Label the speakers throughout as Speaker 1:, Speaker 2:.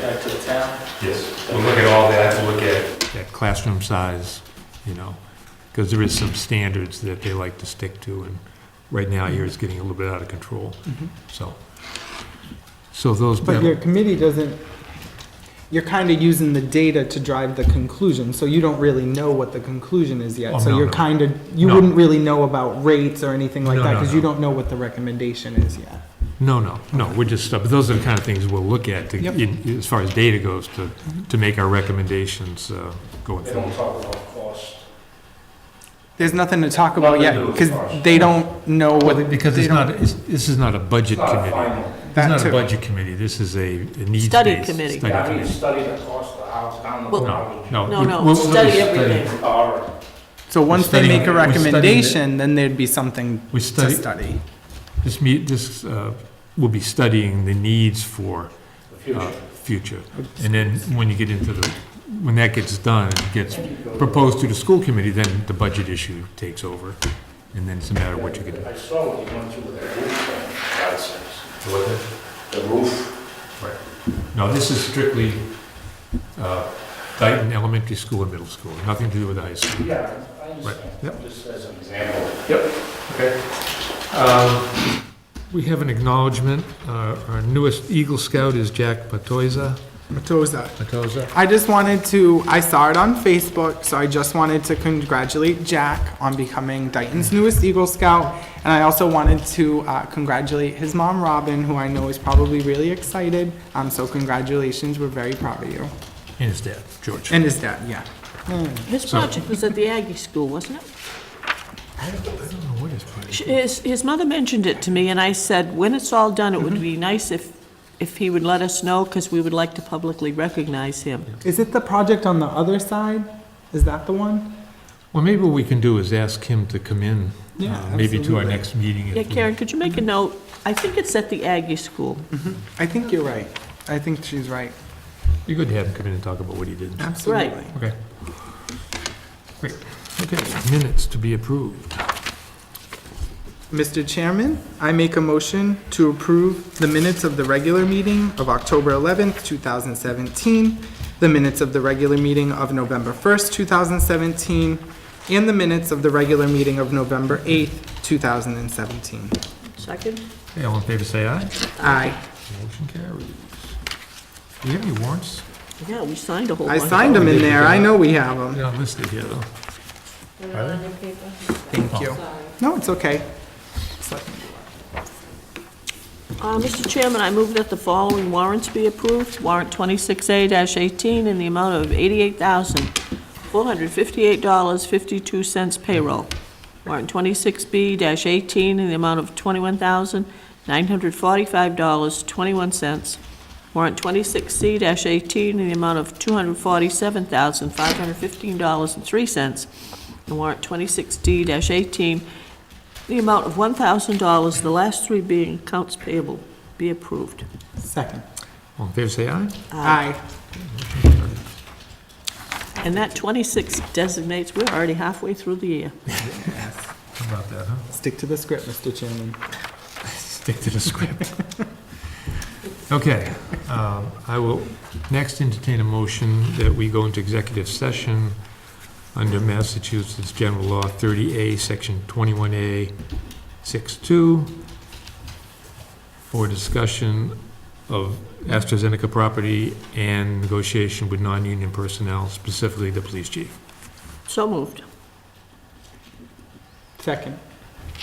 Speaker 1: back to the town?
Speaker 2: Yes, we'll look at all that, we'll look at, at classroom size, you know, because there is some standards that they like to stick to, and right now here it's getting a little bit out of control, so. So those,
Speaker 3: Mm-hmm. But your committee doesn't, you're kind of using the data to drive the conclusion, so you don't really know what the conclusion is
Speaker 2: Oh,
Speaker 3: yet. So
Speaker 2: no,
Speaker 3: you're
Speaker 2: no.
Speaker 3: kind of, you
Speaker 2: No.
Speaker 3: wouldn't really know about rates or anything like
Speaker 2: No,
Speaker 3: that,
Speaker 2: no,
Speaker 3: because you
Speaker 2: no.
Speaker 3: don't know what the recommendation is yet.
Speaker 2: no, no, no, we're just, but those are the kind of things we'll look at, to-
Speaker 3: Yep. Mm-hmm.
Speaker 2: in- as far as data goes, to, to make our recommendations uh, going
Speaker 4: They don't
Speaker 2: forward.
Speaker 4: talk about cost.
Speaker 3: There's nothing to talk about yet, because they don't know what.
Speaker 2: Because
Speaker 3: they
Speaker 2: it's
Speaker 3: don't-
Speaker 2: not, it's- this is not a
Speaker 4: It's
Speaker 2: budget
Speaker 4: not a
Speaker 2: committee.
Speaker 4: final.
Speaker 2: This is
Speaker 3: That
Speaker 2: not a
Speaker 3: too.
Speaker 2: budget committee, this is a a needs-based.
Speaker 5: committee.
Speaker 2: study
Speaker 4: Yeah, I need to
Speaker 2: committee.
Speaker 4: study the cost of the house, down the
Speaker 5: Well-
Speaker 2: No,
Speaker 4: road.
Speaker 2: no.
Speaker 5: No,
Speaker 2: we-
Speaker 5: no,
Speaker 2: we'll- we'll
Speaker 5: study
Speaker 2: just
Speaker 5: everything.
Speaker 4: Or,
Speaker 3: So once they
Speaker 2: studying-
Speaker 3: make a
Speaker 2: we're studying it.
Speaker 3: recommendation, then there'd be something
Speaker 2: We
Speaker 3: to
Speaker 2: study,
Speaker 3: study.
Speaker 2: This meet, this, uh, will be studying the needs for,
Speaker 4: the
Speaker 2: uh,
Speaker 4: future.
Speaker 2: future. And then when you get into the, when that gets done, it gets proposed to the school committee, then the budget issue takes over. And then it's a matter of what you can do.
Speaker 4: I saw what you went through with the roof, thing, God sakes. the roof.
Speaker 2: No, this is strictly, uh, Dayton Elementary School and Middle School, nothing to do with the high school.
Speaker 4: Yeah, I understand,
Speaker 2: Yep.
Speaker 4: just as an example.
Speaker 2: Okay. Um, We have an acknowledgement, uh, our newest Eagle Scout is Jack Patoza.
Speaker 3: Matoza.
Speaker 2: Patoza?
Speaker 3: I just wanted to, I saw it on Facebook, so I just wanted to congratulate Jack on becoming Dayton's newest Eagle Scout. And I also wanted to uh, congratulate his mom, Robin, who I know is probably really excited. Um, so congratulations, we're very proud of you.
Speaker 2: And his dad, George.
Speaker 3: And his dad, yeah.
Speaker 5: His project was at the Aggie School, wasn't it?
Speaker 2: I don't know what his project
Speaker 5: Sh- His, his mother mentioned it to me, and I said, when it's all done, it would be nice if, if he would let us know, because we would like to publicly recognize him.
Speaker 3: Is it the project on the other side? Is that the one?
Speaker 2: Well, maybe what we can do is ask him to come in,
Speaker 3: Yeah,
Speaker 2: uh, maybe to our
Speaker 3: absolutely.
Speaker 2: next meeting. if
Speaker 5: Yeah,
Speaker 2: we-
Speaker 5: Karen, could you make a note? I think it's at the Aggie School.
Speaker 3: I think you're right. I think she's right.
Speaker 2: Be good to have him come in and talk about what he did.
Speaker 3: Absolutely.
Speaker 2: Okay. Great, okay, minutes to be approved.
Speaker 3: Mr. Chairman, I make a motion to approve the minutes of the regular meeting of October 11th, 2017, the minutes of the regular meeting of November 1st, 2017, and the minutes of the regular meeting of November 8th, 2017.
Speaker 5: Second?
Speaker 2: Okay, all in favor, say aye.
Speaker 3: Aye.
Speaker 2: Motion carries. Do we have any warrants?
Speaker 5: Yeah, we signed a whole
Speaker 3: I
Speaker 5: bunch.
Speaker 3: signed them in there. I know we have them.
Speaker 2: They're not listed here, though.
Speaker 3: Thank you. No, it's okay.
Speaker 5: Uh, Mr. Chairman, I move that the following warrants be approved. Warrant 26A-18 in the amount of $88,458.52 payroll. Warrant 26B-18 in the amount of $21,945.21. Warrant 26C-18 in the amount of $247,515.03. And warrant 26D-18 the amount of $1,000, the last three being accounts payable, be approved. Uh,
Speaker 3: Second.
Speaker 2: All in favor, say aye.
Speaker 3: Aye.
Speaker 5: And that 26 designates, we're already halfway through the year.
Speaker 2: How about that, huh?
Speaker 3: Stick to the script, Mr. Chairman.
Speaker 2: Stick to the script. Okay, um, I will next entertain a motion that we go into executive session under Massachusetts General Law 30A, Section 21A, 62, for discussion of AstraZeneca property and negotiation with non-union personnel, specifically the police chief.
Speaker 5: So moved.
Speaker 3: Second.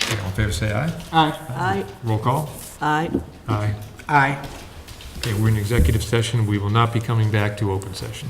Speaker 2: Okay, All in favor, say aye.
Speaker 3: Aye.
Speaker 5: Aye,
Speaker 2: Roll call?
Speaker 5: aye.
Speaker 2: Aye.
Speaker 3: Aye.
Speaker 2: Okay, we're in executive session. We will not be coming back to open session.